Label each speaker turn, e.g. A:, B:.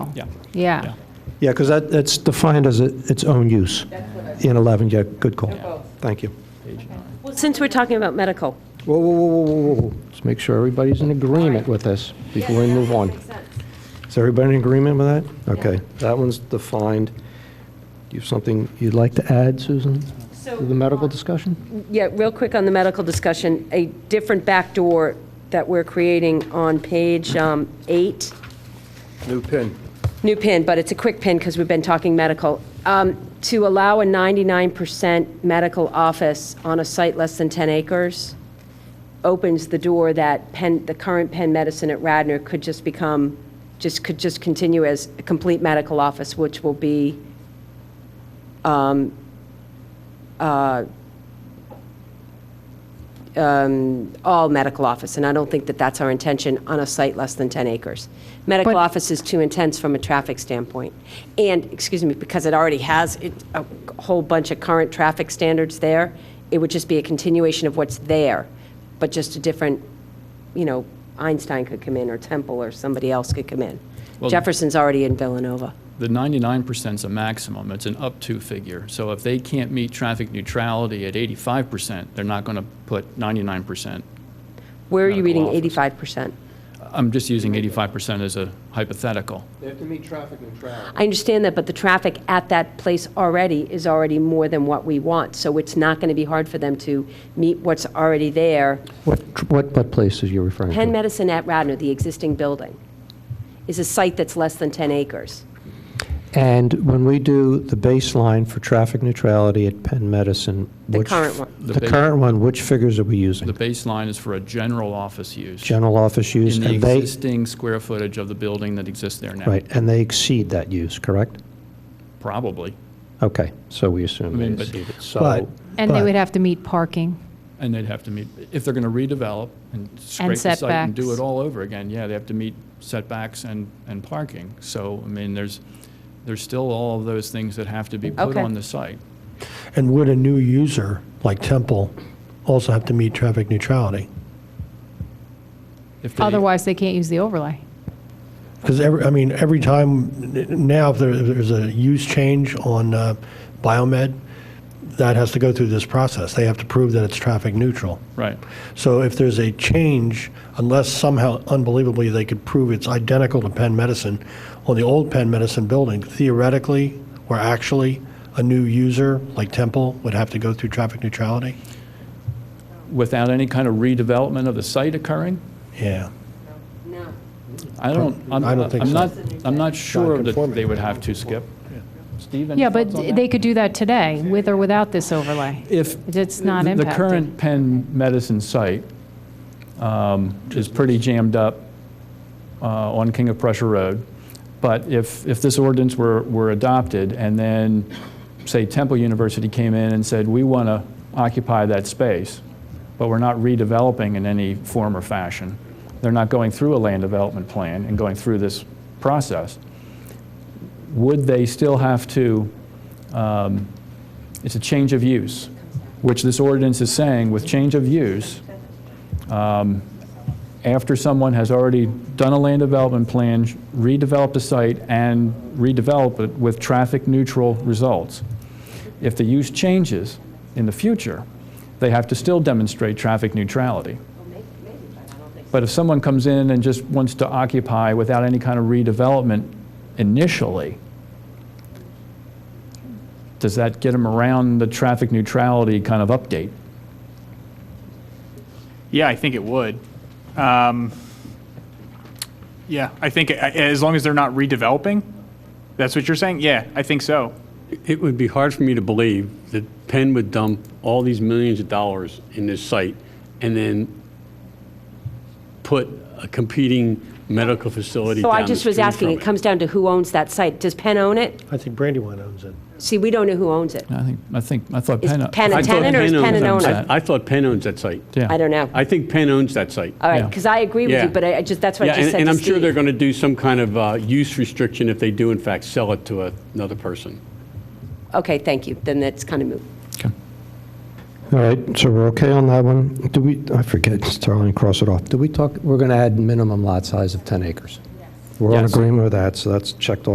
A: Yeah.
B: Yeah.
A: Yeah.
C: Yeah, because that, it's defined as a- its own use in 11, yeah, good call. Thank you.
D: Well, since we're talking about medical,
C: Whoa, whoa, whoa, whoa, whoa, whoa. Let's make sure everybody's in agreement with this before we move on. Is everybody in agreement with that? Okay, that one's defined. Do you have something you'd like to add, Susan,
D: So,
C: to the medical discussion?
D: yeah, real quick on the medical discussion, a different backdoor that we're creating on page um, eight,
C: New pin.
D: new pin, but it's a quick pin because we've been talking medical, Um, to allow a 99% medical office on a site less than 10 acres opens the door that Penn, the current Penn Medicine at Radnor could just become, just, could just continue as a complete medical office, which will be um, uh, um, all medical office, and I don't think that that's our intention on a site less than 10 acres. Medical
B: But-
D: office is too intense from a traffic standpoint. And, excuse me, because it already has it- a whole bunch of current traffic standards there, it would just be a continuation of what's there, but just a different, you know, Einstein could come in, or Temple, or somebody else could come in.
A: Well-
D: Jefferson's already in Villanova.
A: The 99% is a maximum, it's an up to figure. So if they can't meet traffic neutrality at 85%, they're not going to put 99%.
D: Where are you
A: Medical
D: reading
A: office.
D: 85%?
A: I'm just using 85% as a hypothetical.
C: They have to meet traffic neutrality.
D: I understand that, but the traffic at that place already is already more than what we want, so it's not going to be hard for them to meet what's already there.
C: What, tr- what, what place is you referring to?
D: Penn Medicine at Radnor, the existing building, is a site that's less than 10 acres.
C: And when we do the baseline for traffic neutrality at Penn Medicine,
D: The
C: which...
D: current one.
A: The
C: The
A: base-
C: current one, which figures are we
A: The
C: using?
A: baseline is for a general office use.
C: General office use,
A: In the
C: and they,
A: existing square footage of the building that exists there now.
C: right, and they exceed that use, correct?
A: Probably.
C: Okay, so we assume
A: I
C: they
A: mean, Mm, but-
C: exceed it, but- so...
B: And they
C: but-
B: would have to meet parking.
A: And they'd have to meet, if they're going to redevelop and scrape the site and do it
B: setbacks.
A: all over again, yeah, they have to meet setbacks and, and parking. So, I mean, there's, there's still all of those things that have to be put
D: Okay.
A: on the site.
E: And would a new user, like Temple, also have to meet traffic neutrality?
A: If they-
B: Otherwise, they can't use the overlay.
E: Because every, I mean, every time, n- now if there- if there's a use change on uh, Biomed, that has to go through this process. They have to prove that it's traffic neutral.
A: Right.
E: So if there's a change, unless somehow unbelievably they could prove it's identical to Penn Medicine, on the old Penn Medicine building, theoretically or actually, a new user like Temple would have to go through traffic neutrality?
A: Without any kind of redevelopment of the site occurring?
E: Yeah.
D: No.
A: I don't, I'm,
E: I don't think
A: I'm
E: so.
A: not, I'm not sure that
E: Non-conforming.
A: they would have to skip. Steve, any
B: Yeah, but
A: thoughts on that?
B: they could do that today, with or without this overlay.
A: If.
B: It's not
A: the- The
B: impacted.
A: current Penn Medicine site um, is pretty jammed up uh, on King of Prussia Road. But if, if this ordinance were, were adopted and then, say, Temple University came in and said, we want to occupy that space, but we're not redeveloping in any form or fashion, they're not going through a land development plan and going through this process, would they still have to, um, it's a change of use, which this ordinance is saying, with change of use, um, after someone has already done a land development plan, redeveloped a site, and redeveloped it with traffic-neutral results, if the use changes in the future, they have to still demonstrate traffic neutrality. But if someone comes in and just wants to occupy without any kind of redevelopment initially, does that get them around the traffic neutrality kind of update?
F: Yeah, I think it would. Um, Yeah, I think a- as long as they're not redeveloping, that's what you're saying? Yeah, I think so.
G: It would be hard for me to believe that Penn would dump all these millions of dollars in this site and then put a competing medical facility
D: So
G: down
D: I
G: the
D: just was
G: street
D: asking,
G: from
D: it comes down to who owns that site. Does Penn own it?
E: I think Brandywine owns it.
D: See, we don't know who owns it.
A: I think, I think, I thought
D: Is
A: Penn.
D: Penn a
G: I thought
D: tenant or is Penn an
G: owns-
D: owner?
A: that.
G: I I thought Penn owns that site.
A: Yeah.
D: I don't know.
G: I think Penn owns that site.
D: All right,
A: Yeah.
D: because I agree with
G: Yeah.
D: you, but I I just, that's what I
G: Yeah,
D: just
G: and
D: said
G: and
D: to
G: I'm sure they're
D: Steve.
G: going to do some kind of uh, use restriction if they do in fact sell it to a- another person.
D: Okay, thank you, then that's kind of moot.
A: Okay.
C: All right, so we're okay on that one. Do we, I forget, Starling, cross it off. Do we talk, we're going to add minimum lot size of 10 acres? We're in
A: Yes.
C: agreement with that, so that's checked off.